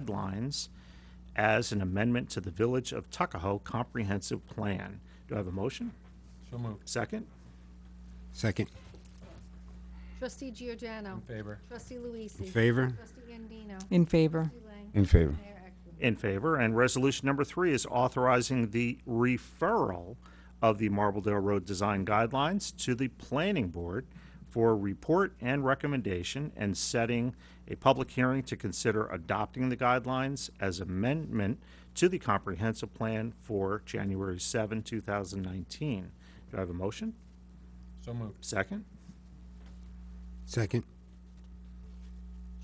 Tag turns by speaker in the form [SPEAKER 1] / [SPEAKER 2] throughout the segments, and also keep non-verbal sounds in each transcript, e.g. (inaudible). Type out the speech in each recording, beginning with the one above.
[SPEAKER 1] guidelines as an amendment to the Village of Tuckahoe Comprehensive Plan. Do I have a motion?
[SPEAKER 2] So moved.
[SPEAKER 1] Second?
[SPEAKER 3] Second.
[SPEAKER 4] Trustee Giordano.
[SPEAKER 2] In favor.
[SPEAKER 4] Trustee Luisi.
[SPEAKER 3] In favor?
[SPEAKER 4] Trustee Andino.
[SPEAKER 5] In favor.
[SPEAKER 4] Trustee Lang.
[SPEAKER 3] In favor.
[SPEAKER 4] Mayor Eklund.
[SPEAKER 1] In favor. And resolution number three is authorizing the referral of the Marbledale Road Design Guidelines to the Planning Board for report and recommendation and setting a public hearing to consider adopting the guidelines as amendment to the comprehensive plan for January 7, 2019. Do I have a motion?
[SPEAKER 2] So moved.
[SPEAKER 1] Second?
[SPEAKER 3] Second.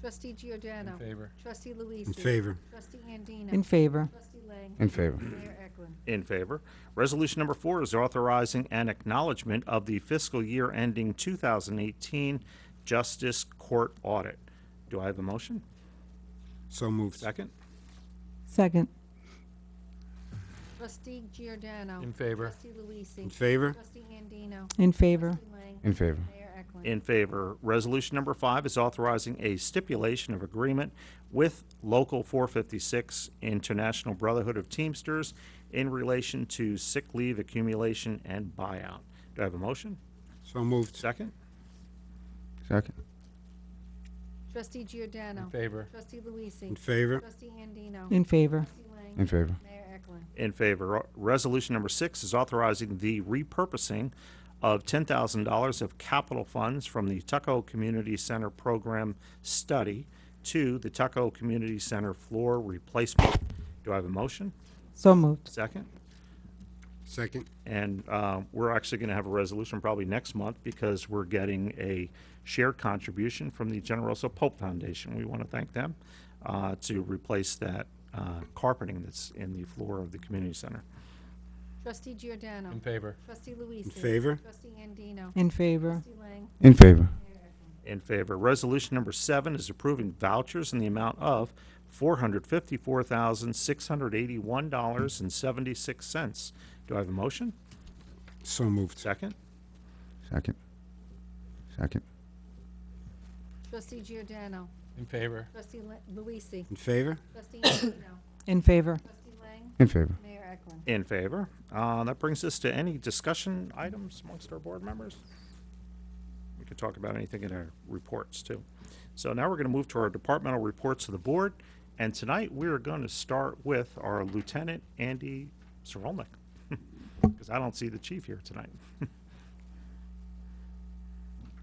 [SPEAKER 4] Trustee Giordano.
[SPEAKER 2] In favor.
[SPEAKER 4] Trustee Luisi.
[SPEAKER 3] In favor.
[SPEAKER 4] Trustee Andino.
[SPEAKER 5] In favor.
[SPEAKER 4] Trustee Lang.
[SPEAKER 3] In favor.
[SPEAKER 4] Mayor Eklund.
[SPEAKER 1] In favor. Resolution number four is authorizing an acknowledgement of the fiscal year ending 2018 Justice Court Audit. Do I have a motion?
[SPEAKER 3] So moved.
[SPEAKER 1] Second?
[SPEAKER 5] Second.
[SPEAKER 4] Trustee Giordano.
[SPEAKER 2] In favor.
[SPEAKER 4] Trustee Luisi.
[SPEAKER 3] In favor?
[SPEAKER 4] Trustee Andino.
[SPEAKER 5] In favor.
[SPEAKER 4] Trustee Lang.
[SPEAKER 3] In favor.
[SPEAKER 4] Mayor Eklund.
[SPEAKER 1] In favor. Resolution number five is authorizing a stipulation of agreement with Local 456 International Brotherhood of Teamsters in relation to sick leave accumulation and buyout. Do I have a motion?
[SPEAKER 3] So moved.
[SPEAKER 1] Second?
[SPEAKER 3] Second.
[SPEAKER 4] Trustee Giordano.
[SPEAKER 2] In favor.
[SPEAKER 4] Trustee Luisi.
[SPEAKER 3] In favor?
[SPEAKER 4] Trustee Andino.
[SPEAKER 5] In favor.
[SPEAKER 4] Trustee Lang.
[SPEAKER 3] favor.
[SPEAKER 4] Mayor Eklund.
[SPEAKER 1] In favor. Resolution number six is authorizing the repurposing of $10,000 of capital funds from the Tuckahoe Community Center Program Study to the Tuckahoe Community Center floor replacement. Do I have a motion?
[SPEAKER 5] So moved.
[SPEAKER 1] Second?
[SPEAKER 3] Second.
[SPEAKER 1] And uh, we're actually going to have a resolution probably next month because we're getting a shared contribution from the General Russell Pope Foundation. We want to thank them uh, to replace that uh, carpeting that's in the floor of the community center.
[SPEAKER 4] Trustee Giordano.
[SPEAKER 2] In favor.
[SPEAKER 4] Trustee Luisi. In
[SPEAKER 3] favor?
[SPEAKER 4] Trustee Andino.
[SPEAKER 5] In favor.
[SPEAKER 4] Trustee Lang.
[SPEAKER 6] In favor.
[SPEAKER 1] In favor. Resolution number seven is approving vouchers in the amount of $454,681.76. Do I have a motion?
[SPEAKER 3] So moved.
[SPEAKER 1] Second?
[SPEAKER 6] Second. Second.
[SPEAKER 4] Trustee Giordano.
[SPEAKER 2] In favor.
[SPEAKER 4] Trustee La- Luisi.
[SPEAKER 3] In favor?
[SPEAKER 4] Trustee Andino.
[SPEAKER 5] In favor.
[SPEAKER 4] Trustee Lang.
[SPEAKER 6] In favor.
[SPEAKER 4] Mayor Eklund.
[SPEAKER 1] In favor. Uh, That brings us to any discussion items amongst our board members. We could talk about anything in our reports, too. So now we're going to move to our departmental reports of the board, and tonight we are going to start with our Lieutenant Andy (laughs) Sorolnik, because I don't see the chief here tonight.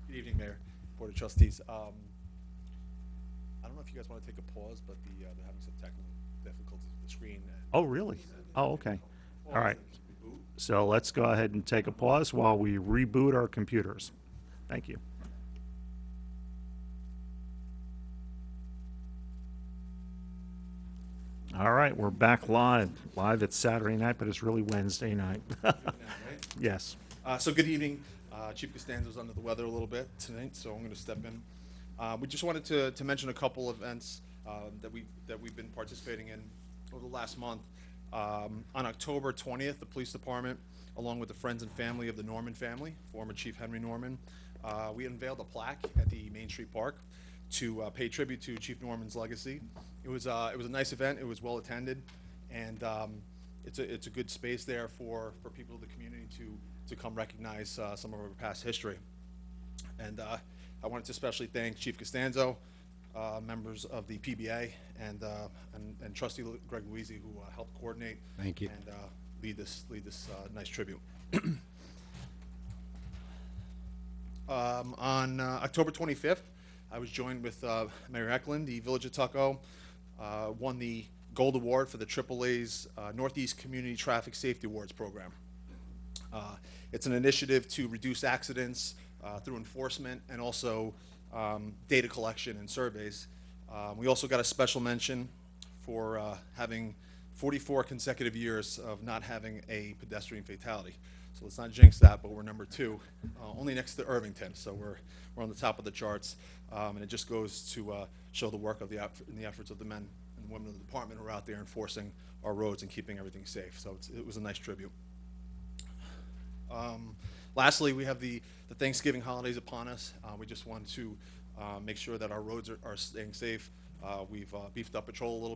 [SPEAKER 7] Good evening, Mayor, Board of Trustees. Um, I don't know if you guys want to take a pause, but the, uh, they're having some technical difficulties with the screen. and-
[SPEAKER 1] Oh, really? Oh, okay. All right.
[SPEAKER 7] Reboot.
[SPEAKER 1] So let's go ahead and take a pause while we reboot our computers. Thank you. All right, we're back live. Live, it's Saturday night, but it's really Wednesday night. (laughs) Yes.
[SPEAKER 7] Uh, so good evening. Uh, Chief Costanzo's under the weather a little bit tonight, so I'm going to step in. Uh, we just wanted to, to mention a couple events uh, that we that we've been participating in over the last month. Um, on October 20th, the police department, along with the friends and family of the Norman family, former Chief Henry Norman, uh, we unveiled a plaque at the Main Street Park to uh, pay tribute to Chief Norman's legacy. It was uh, it was a nice event. It was well attended, and um, it's a, it's a good space there for, for people of the community to, to come recognize uh, some of our past history. And uh, I wanted to especially thank Chief Costanzo, uh, members of the PBA, and, uh, and, and Trustee Greg Luizzi, who uh, helped coordinate.
[SPEAKER 3] Thank you.
[SPEAKER 7] And uh, lead this, lead this uh, nice tribute. Um, on uh, October 25th, I was joined with uh, Mayor Eklund. The Village of Tuckahoe uh, won the Gold Award for the AAA's uh, Northeast Community Traffic Safety Awards program. Uh, It's an initiative to reduce accidents uh, through enforcement and also um, data collection and surveys. Uh, We also got a special mention for uh, having 44 consecutive years of not having a pedestrian fatality. So let's not jinx that, but we're number two, uh, only next to Irvington. So we're, we're on the top of the charts. Um, And it just goes to uh, show the work of the, eff- and the efforts of the men and women of the department who are out there enforcing our roads and keeping everything safe. So it's- it was a nice tribute. Um, lastly, we have the, the Thanksgiving holidays upon us. Uh, we just want to uh, make sure that our roads are, are staying safe. Uh, We've uh, beefed up patrol a little